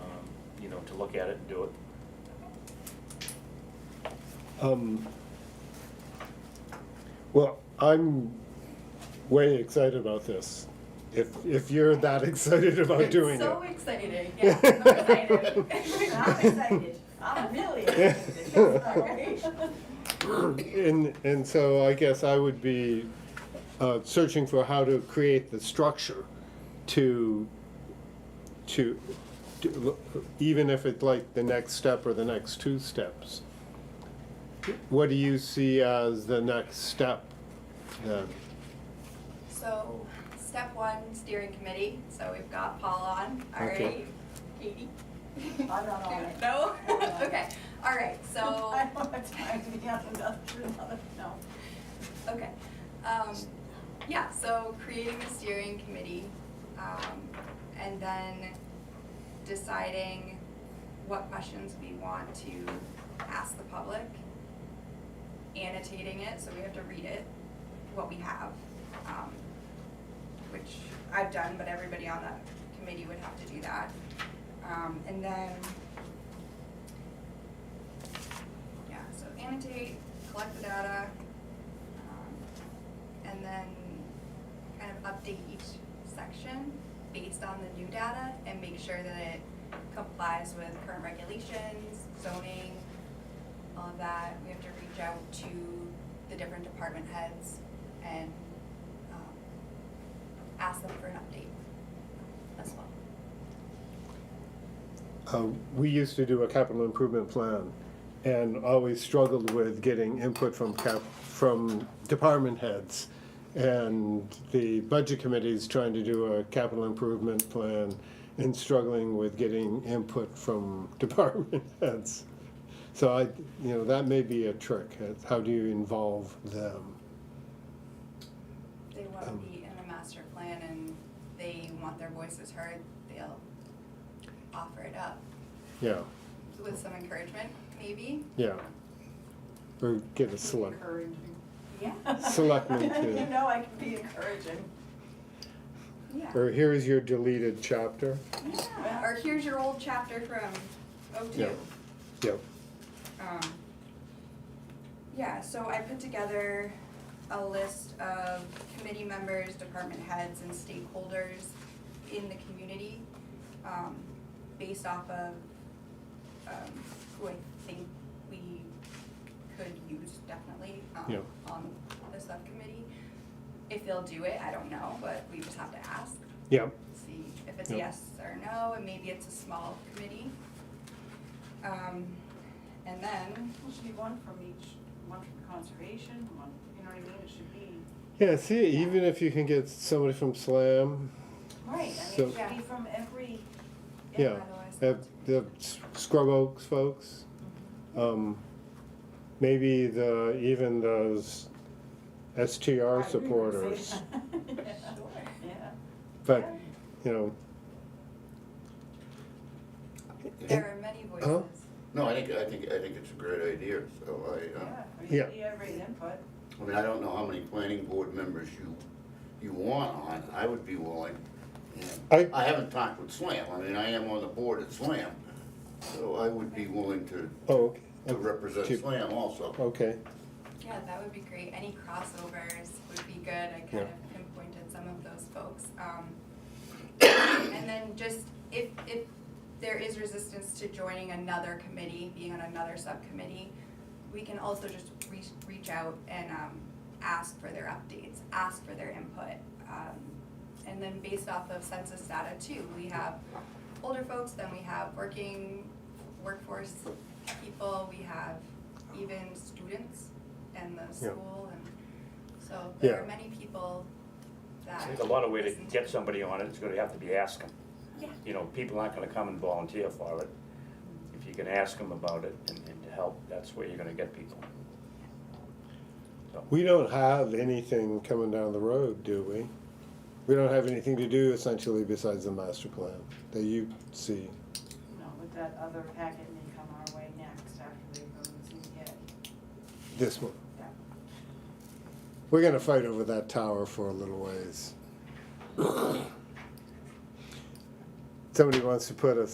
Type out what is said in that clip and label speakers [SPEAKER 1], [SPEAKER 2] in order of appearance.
[SPEAKER 1] um, know, to look at it and do it.
[SPEAKER 2] Um, Well, I'm way excited about this. If, if you're that excited about doing it.
[SPEAKER 3] So exciting, yeah, I'm excited.
[SPEAKER 4] I'm excited, I'm really excited, this is great.
[SPEAKER 2] And, and so I guess I would be uh, searching for how to create the structure to, to, to- even if it's like the next step or the next two steps. What do you see as the next step then?
[SPEAKER 3] So, step one, steering committee, so we've got Paul on, all
[SPEAKER 2] Okay.
[SPEAKER 3] right, Katie?
[SPEAKER 4] I'm not on it.
[SPEAKER 3] No? Okay, all right, so,
[SPEAKER 4] I don't have time to be on another, another, no.
[SPEAKER 3] okay. Um, yeah, so creating a steering committee, um, and then deciding what questions we want to ask the public, annotating it, so we have to read it, what we have, um, which I've done, but everybody on that committee would have to do that. Um, and then, yeah, so annotate, collect the data, um, and then kind of update each section based on the new data and make sure that it complies with current regulations, zoning, all of that. We have to reach out to the different department heads and, um, ask them for an update as well.
[SPEAKER 2] Uh, We used to do a capital improvement plan and always struggled with getting input from cap, from department heads. And the budget committee's trying to do a capital improvement plan and struggling with getting input from department heads. So I, you know, that may be a trick. It's How do you involve them?
[SPEAKER 3] They want to be in the master plan and they want their voices heard, they'll offer it up
[SPEAKER 2] Yeah,
[SPEAKER 3] with some encouragement, maybe.
[SPEAKER 2] yeah. Or get a select,
[SPEAKER 4] Encouraging.
[SPEAKER 3] Yeah.
[SPEAKER 2] Selectmen too.
[SPEAKER 4] You know I can be encouraging.
[SPEAKER 3] Yeah.
[SPEAKER 2] or here is your deleted chapter.
[SPEAKER 3] Yeah, Or here's your old chapter from O two.
[SPEAKER 2] Yeah. Yep.
[SPEAKER 3] Um, yeah, so I put together a list of committee members, department heads, and stakeholders in the community, um, based off of, um, who I think we could use definitely,
[SPEAKER 2] Yeah.
[SPEAKER 3] um, on the subcommittee. If they'll do it, I don't know, but we just have to ask,
[SPEAKER 2] Yep.
[SPEAKER 3] see if it's
[SPEAKER 2] Yep.
[SPEAKER 3] yes or no, and maybe it's a small committee. Um, and then,
[SPEAKER 4] It should be one from each, one from conservation, one, you know what I mean, it should be,
[SPEAKER 2] Yeah, see, even if you can get somebody from Slam,
[SPEAKER 4] right, I
[SPEAKER 2] So-
[SPEAKER 4] mean, it should be from every,
[SPEAKER 2] yeah,
[SPEAKER 3] otherwise-
[SPEAKER 2] the, the S- Scrub Oaks folks, um, maybe the, even those STR supporters,
[SPEAKER 4] Yeah. yeah.
[SPEAKER 2] but, you know,
[SPEAKER 3] there are many
[SPEAKER 2] Huh?
[SPEAKER 3] voices.
[SPEAKER 5] No, I think, I think, I think it's a great idea, so I, uh,
[SPEAKER 4] Yeah, I mean,
[SPEAKER 2] Yeah.
[SPEAKER 4] you have great input.
[SPEAKER 5] I mean, I don't know how many planning board members you, you want on, I would be willing. and
[SPEAKER 2] I-
[SPEAKER 5] I haven't talked with Slam, I mean, I am on the board at Slam, so I would be willing to,
[SPEAKER 2] oh,
[SPEAKER 5] to
[SPEAKER 2] okay,
[SPEAKER 5] represent
[SPEAKER 2] to-
[SPEAKER 5] Slam also.
[SPEAKER 2] okay,
[SPEAKER 3] Yeah, that would be great. Any crossovers would be good. I
[SPEAKER 2] Yeah.
[SPEAKER 3] kind of pinpointed some of those folks. Um, and then just if, if there is resistance to joining another committee, being on another subcommittee, we can also just reach, reach out and, um, ask for their updates, ask for their input. Um, and then based off of census data too, we have older folks, then we have working workforce people, we have even students and the
[SPEAKER 2] Yeah.
[SPEAKER 3] school and so there are
[SPEAKER 2] Yeah.
[SPEAKER 3] many people that.
[SPEAKER 1] There's a lot of way to
[SPEAKER 3] listen
[SPEAKER 1] get somebody on it, it's gonna have to be ask 'em.
[SPEAKER 3] Yeah.
[SPEAKER 1] You know, people aren't gonna come and volunteer for it. If you can ask them about it and, and to help, that's where you're gonna get people. So,
[SPEAKER 2] we don't have anything coming down the road, do we? We don't have anything to do essentially besides the master plan that you see,
[SPEAKER 4] you know, with that other packet may come our way next after they go and see it.
[SPEAKER 2] this one.
[SPEAKER 4] Yeah.
[SPEAKER 2] We're gonna fight over that tower for a little ways. Somebody wants to put a